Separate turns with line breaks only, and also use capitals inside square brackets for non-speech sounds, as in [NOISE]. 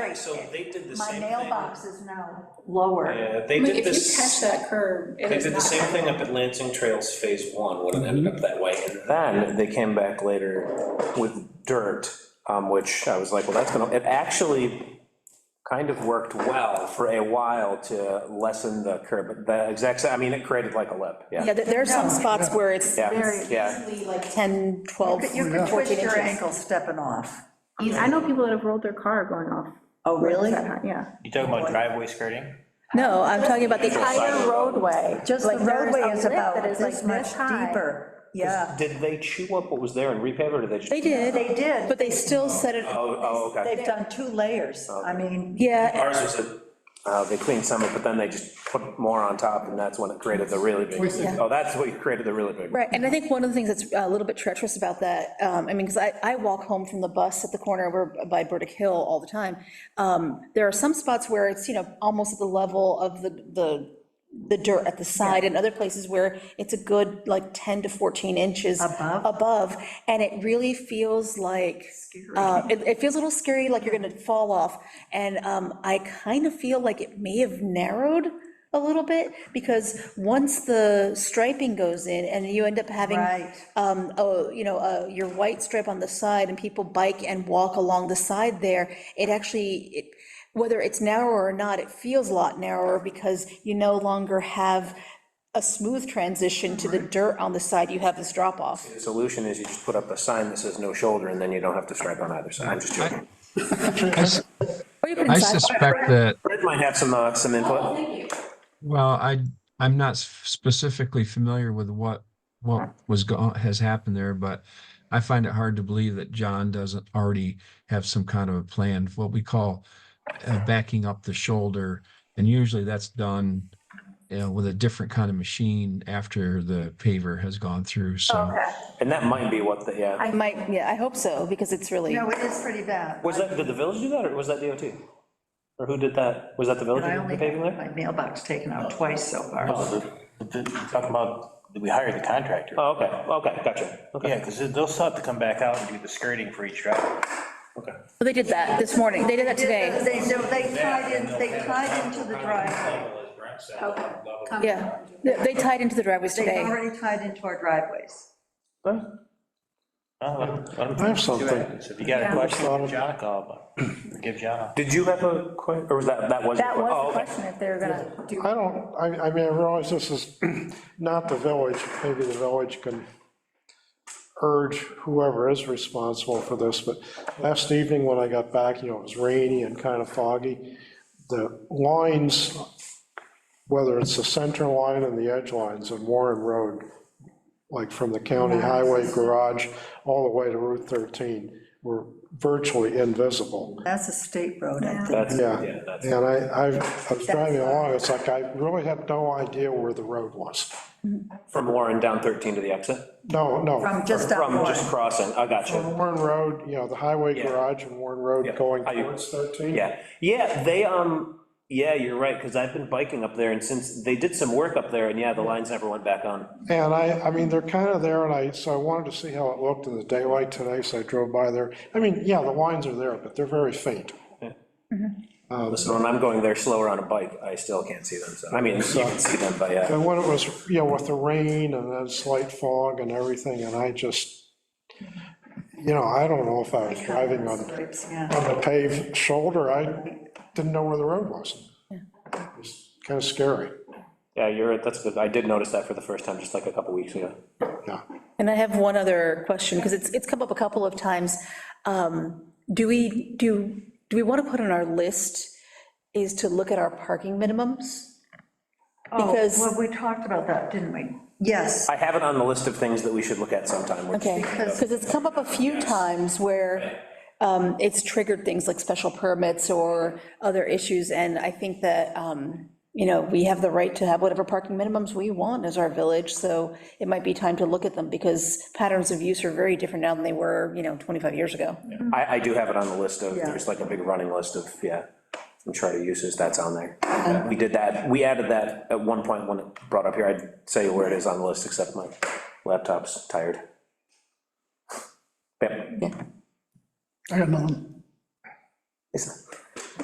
Right, so they did the
My
same thing.
mailbox is now lower.
Yeah,
I
they
mean,
did
if you
this.
catch that curve, it
They
is
did the
not
same thing up at Lansing Trails Phase One, when it ended up that way, and then they came back later with dirt, um, which I was like, well, that's gonna, it actually kind of worked well for a while to lessen the curb, but the exact, sa- I mean, it created like a lip, yeah.
Yeah, there there are some spots where it's
Yeah, yeah,
easily like 10, 12,
You could
14
twist your
Oh, inches.
ankle stepping off.
I know people that have rolled their car going off.
Oh, really?
that high, Yeah.
You talking about driveway skirting?
No, I'm talking about the
sidewalk.
entire roadway.
Just the
Like, there's
roadway
a
is
lip
about
that is, like,
this much
high.
deeper. Yeah,
Did they chew up what was there and repave it, or did they just?
They did.
They did.
But they still set it,
Oh, oh, okay.
they've done two layers. I mean,
yeah,
Ours was a, uh, they cleaned some, of it, but then they just put more on top, and that's when it created the really big. Oh, that's what created the really big.
right, and I think one of the things that's uh, a little bit treacherous about that, um, I mean, because I, I walk home from the bus at the corner over by Burdick Hill all the time. Um, There are some spots where it's, you know, almost at the level of the, the, the dirt at the side, and other places where it's a good, like, 10 to 14 inches.
Above?
Above, and it really feels like. Uh, It, it feels a little scary, like you're gonna fall off, and um, I kind of feel like it may have narrowed a little bit, because once the striping goes in, and you end up having,
Right.
um, oh, you know, uh, your white stripe on the side, and people bike and walk along the side there, it actually, it- whether it's narrower or not, it feels a lot narrower, because you no longer have a smooth transition to the dirt on the side, you have this drop-off.
The solution is you just put up a sign that says no shoulder, and then you don't have to stripe on either side. I'm just joking.
I s-
Or you put
I
in sidewalk.
suspect that,
Fred might have some, uh, some input.
well, I, I'm not s- specifically familiar with what, what was go, has happened there, but I find it hard to believe that John doesn't already have some kind of a plan, what we call uh, backing up the shoulder. And usually that's done, you know, with a different kind of machine after the paver has gone through, so.
And that might be what the, yeah.
I might, yeah, I hope so, because it's really,
no, it is pretty bad.
Was that, did the village do that, or was that DOT? Or who did that? Was that the Oh. village
I
that
only
did the paving
had
there?
my mailbox taken out twice so far.
Oh, Talking about, that we hired the contractor.
Oh, okay, okay, gotcha, okay,
Yeah, because they'll still have to come back out and do the skirting for each driveway.
okay.
Well, they did that this morning, they did that today,
They, no, they tied in, they tied into the driveway.
yeah. They they tied into the driveways
They
today.
already tied into our driveways.
Oh, let him- let
I
him-
have something.
So If you got a question, give John a call, but give John a.
Did you have a que, or was that, that was? your
That
que-
was
oh,
the
okay.
question, if they were gonna do,
I don't, I, I mean, I realize this is [CLEARS THROAT] not the village, maybe the village can urge whoever is responsible for this, but last evening when I got back, you know, it was rainy and kind of foggy, the lines, whether it's the center line and the edge lines on Warren Road, like from the county highway garage all the way to Route 13, were virtually invisible.
That's a state road, I think.
That's,
Yeah.
yeah, that's.
And I, I I was driving along, it's like, I really had no idea where the road was.
From Warren down 13 to the exit?
No, no,
From just out
From just
north.
crossing, I gotcha.
Warren Road, you know, the highway
Yeah.
garage and Warren
Yeah.
Road going
How you-
towards 13.
Yeah, yeah, they, um, yeah, you're right, because I've been biking up there, and since, they did some work up there, and yeah, the lines never went back on.
And I, I mean, they're kind of there, and I, so I wanted to see how it looked in the daylight today, so I drove by there. I mean, yeah, the lines are there, but they're very faint.
Listen, when I'm going there slower on a bike, I still can't see them, so, I mean, you can see them, but yeah.
And when it was, you know, with the rain and then slight fog and everything, and I just, you know, I don't know if I was driving on
Stripes, yeah.
on the paved shoulder, I didn't know where the road was. It's Kind of scary,
Yeah, you're right, that's good, I did notice that for the first time, just like a couple weeks ago.
yeah.
And I have one other question, because it's, it's come up a couple of times. Um, Do we, do, do we want to put on our list is to look at our parking minimums? Because-
Oh, Well, we talked about that, didn't we? Yes.
I have it on the list of things that we should look at sometime, which,
Okay, because it's come up a few times where um, it's triggered things like special permits or other issues, and I think that, um, you know, we have the right to have whatever parking minimums we want as our village, so it might be time to look at them, because patterns of use are very different now than they were, you know, 25 years ago.
I, I do have it on the list of, there's like a big running list of, yeah, some charter uses, that's on there. We did that, we added that at one point when it brought up here, I'd say where it is on the list, except my laptop's tired. Yep.
I got nothing.
It's-